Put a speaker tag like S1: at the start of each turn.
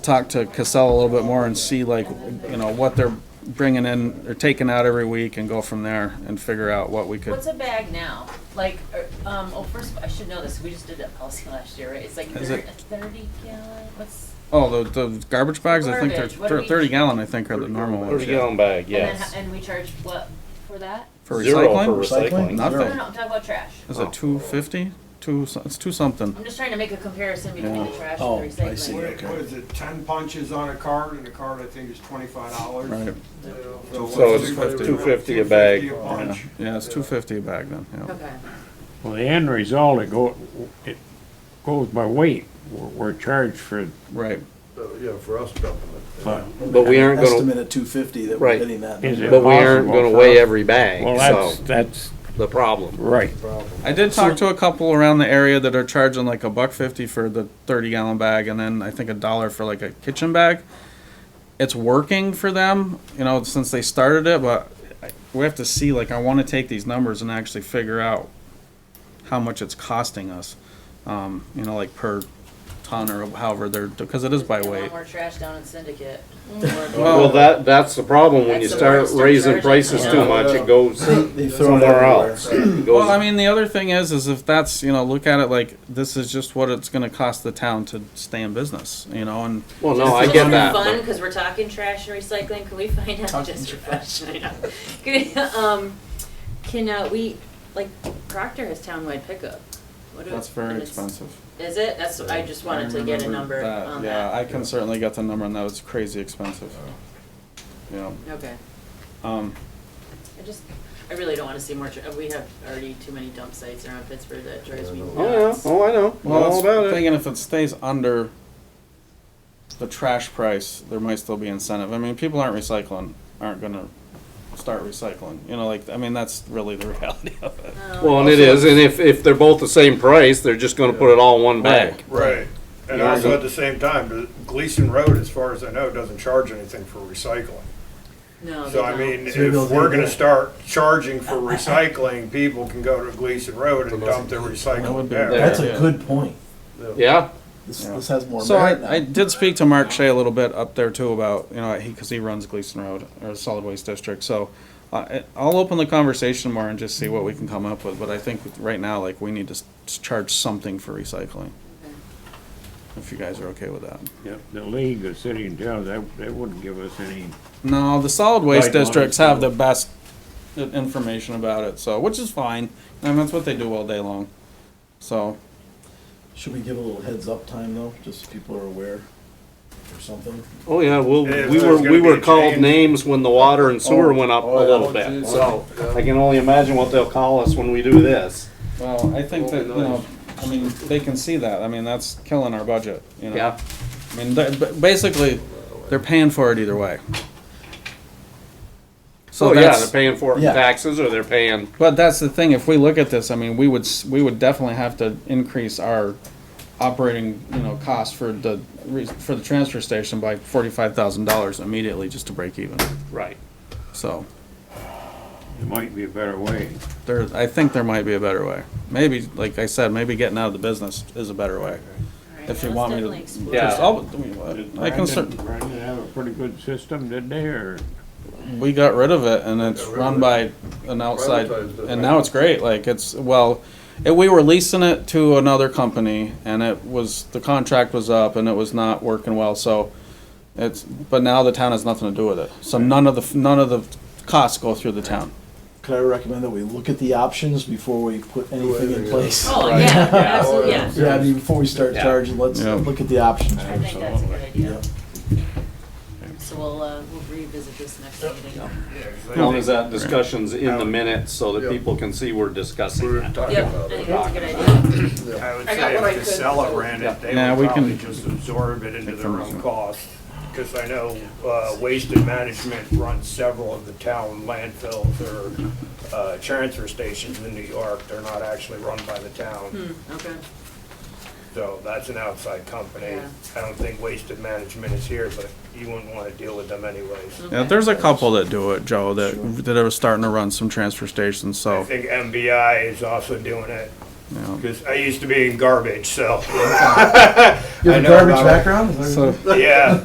S1: talk to Cassell a little bit more and see like, you know, what they're bringing in or taking out every week and go from there and figure out what we could.
S2: What's a bag now? Like, er, um, oh, first, of all, I should know this, we just did that policy last year, right? It's like
S1: Is
S2: thir-
S1: it-
S2: a thirty gallon, what's?
S1: Oh, the, the garbage bags, I think
S2: Garbage, what do
S1: they're
S2: we-
S1: thirty gallon, I think are the normal ones.
S3: Thirty
S1: yeah.
S3: gallon bag,
S2: and then ho-
S3: yes.
S2: And we charge what for that?
S1: For
S3: Zero for
S1: recycling,
S3: recycling.
S1: Nothing.
S2: No, no, no, I'm talking about trash.
S1: is it two fifty? Two, so- it's two something.
S2: I'm just trying to make a comparison between
S1: Yeah.
S2: the trash
S4: Oh, I
S2: and the
S4: see.
S2: recycling.
S5: What what is it, ten punches on a card, and a card I think is twenty-five dollars?
S1: Right.
S3: So it's two fifty a bag.
S5: Two fifty a punch.
S1: Yeah, it's two fifty a bag then, yeah.
S2: Okay,
S6: Well, the end result, it go, it goes by weight. We're, we're charged for,
S1: Right.
S7: Yeah, for us dumping it.
S6: but
S3: But we aren't gonna,
S4: Estimate at two fifty that we're
S3: Right.
S4: hitting that.
S6: Is
S4: number.
S3: but we aren't
S6: Impossible
S3: gonna
S6: for
S3: weigh
S6: us.
S3: every bag,
S6: well, that's,
S3: so,
S6: that's
S3: the problem.
S6: right.
S1: I did talk to a couple around the area that are charging like a buck fifty for the thirty gallon bag, and then I think a dollar for like a kitchen bag. It's working for them, you know, since they started it, but I- we have to see. Like, I want to take these numbers and actually figure out how much it's costing us, um, you know, like per ton or however they're because it is by
S2: Get a lot
S1: weight.
S2: more trash down in Syndicate. Or-
S3: Well, that, that's the problem, when you
S2: That's the
S3: start
S2: worst, they're
S3: raising
S2: charging.
S3: prices too
S4: Yeah.
S3: much, it goes
S4: They throw it
S3: somewhere
S4: everywhere.
S3: else. It
S1: Well, I
S3: goes-
S1: mean, the other thing is, is if that's you know, look at it like this is just what it's going to cost the town to stay in business, you know, and
S3: Well, no, I
S2: Just
S3: get
S2: for
S3: that,
S2: Fun,
S3: but
S2: because we're talking trash and recycling. Can we find out
S4: Talking
S2: just for
S4: trash.
S2: fun? I know. um, can uh, we like Proctor has townwide pickup? What do-
S1: that's very
S2: and it's-
S1: expensive.
S2: Is it? That's I just wanted to get a number on
S1: yeah,
S2: that.
S1: I can certainly get the number on that. It's crazy expensive. Yeah.
S2: okay.
S1: Um,
S2: I just I really don't want to see more. Tra- we have already too many dump sites around Pittsburgh that drives me
S3: Oh, yeah,
S2: nuts.
S3: oh, I know, I know
S1: well,
S3: all about
S1: that's
S3: it.
S1: thinking if it stays under the trash price, there might still be incentive. I mean, people aren't recycling, aren't gonna start recycling. You know, like I mean, that's really the reality of it.
S3: Well, and it is, and if, if they're both the same price, they're just gonna put it all in one bag.
S7: Right, and
S3: Yeah.
S7: also at the same time, Gleason Road, as far as I know, doesn't charge anything for recycling.
S2: No, Oh, they
S7: So I
S2: don't.
S7: mean,
S4: So we'll
S7: if
S4: do
S7: we're gonna
S4: that.
S7: start charging for recycling, people can go to Gleason Road and dump their
S1: That would
S7: recycling
S1: be-
S7: there.
S4: That's a
S1: Yeah.
S4: good point.
S3: Yeah,
S4: This,
S1: Yeah.
S4: this has more
S1: So
S4: merit now.
S1: I, I did speak to Mark Shea a little bit up there too about, you know, he, because he runs Gleason Road or Solid Waste District. So I, I'll open the conversation more and just see what we can come up with. But I think right now, like, we need to s- charge something for recycling. If you guys are okay with that.
S6: The- The league, the city and town, that, that wouldn't give us any,
S1: No, the solid waste
S6: Right, no,
S1: districts
S6: I
S1: have the best i- information about it, so, which is fine. I mean, that's what they do all day long. So,
S4: Should we give a little heads up time though, just so people are aware or something?
S3: oh, yeah, well,
S7: If
S3: we were,
S7: there's gonna
S3: we were
S7: be a
S3: called
S7: change-
S3: names when the water and sewer went up a
S7: oh, yeah.
S3: little bit, so I can only imagine what they'll call us when we do this.
S1: well, I think that, you know, I mean, they can see that. I mean, that's killing our budget, you know?
S3: Yeah,
S1: I mean, they- ba- basically, they're paying for it either way. So
S3: so Oh, yeah,
S1: that's,
S3: they're paying for it in
S4: Yeah.
S3: taxes or they're paying
S1: but that's the thing. If we look at this, I mean, we would s- we would definitely have to increase our operating you know cost for the re- for the transfer station by forty five thousand dollars immediately just to break even.
S3: Right.
S1: So
S6: there might be a better way.
S1: there, I think there might be a better way. Maybe, like I said, maybe getting out of the business is a better way.
S2: All right,
S1: If you
S2: let's
S1: want me to,
S2: definitely explore
S3: Yeah.
S1: Just-
S2: that.
S1: I'll-
S6: Did
S1: I can cer-
S6: Brandon- Brandon have a pretty good system, did they, or?
S1: we got rid of it and it's
S7: Got rid
S1: run
S7: of
S1: by an outside
S7: Privatized it.
S1: and now it's great like it's well it, we were leasing it to another company and it was the contract was up and it was not working well so it's but now the town has nothing to do with it so none of the none of the costs go through the town
S4: Could I recommend that we look at the options before we put anything in
S7: anything
S4: place?
S2: Oh
S3: Right.
S2: yeah,
S3: Yeah.
S2: absolutely. Yeah.
S4: Yeah, I mean, before we start
S3: Yeah.
S4: charging, let's
S1: Yeah.
S4: look at the options.
S2: I think that's a good idea.
S4: Yeah.
S2: So we'll uh, we'll revisit this next meeting.
S3: As long as that discussion's in the minutes so that
S7: Yeah.
S3: people can see we're discussing that.
S2: Yep, I think that's a good idea.
S7: I would
S2: I got
S7: say
S2: what I
S7: if
S2: could.
S7: Casella ran it, they
S1: Yeah, we
S7: would
S1: can-
S7: probably just absorb it into their own cost. Because I know uh, Waste and Management runs several of the town landfills or uh, transfer stations in New York. They're not actually run by the town,
S2: Okay.
S7: so that's an outside company.
S2: Yeah.
S7: I don't think Waste and Management is here, but you wouldn't want to deal with them anyways.
S2: Hmm.
S1: yeah, there's a couple that do it joe that that are starting to run some transfer stations
S7: I
S1: so
S7: think MBI is also doing it.
S1: Yeah.
S7: Because I used to be in garbage, so,
S4: You have a
S7: I know
S4: garbage
S7: about it.
S4: background? Is that what you're
S1: So.
S7: yeah.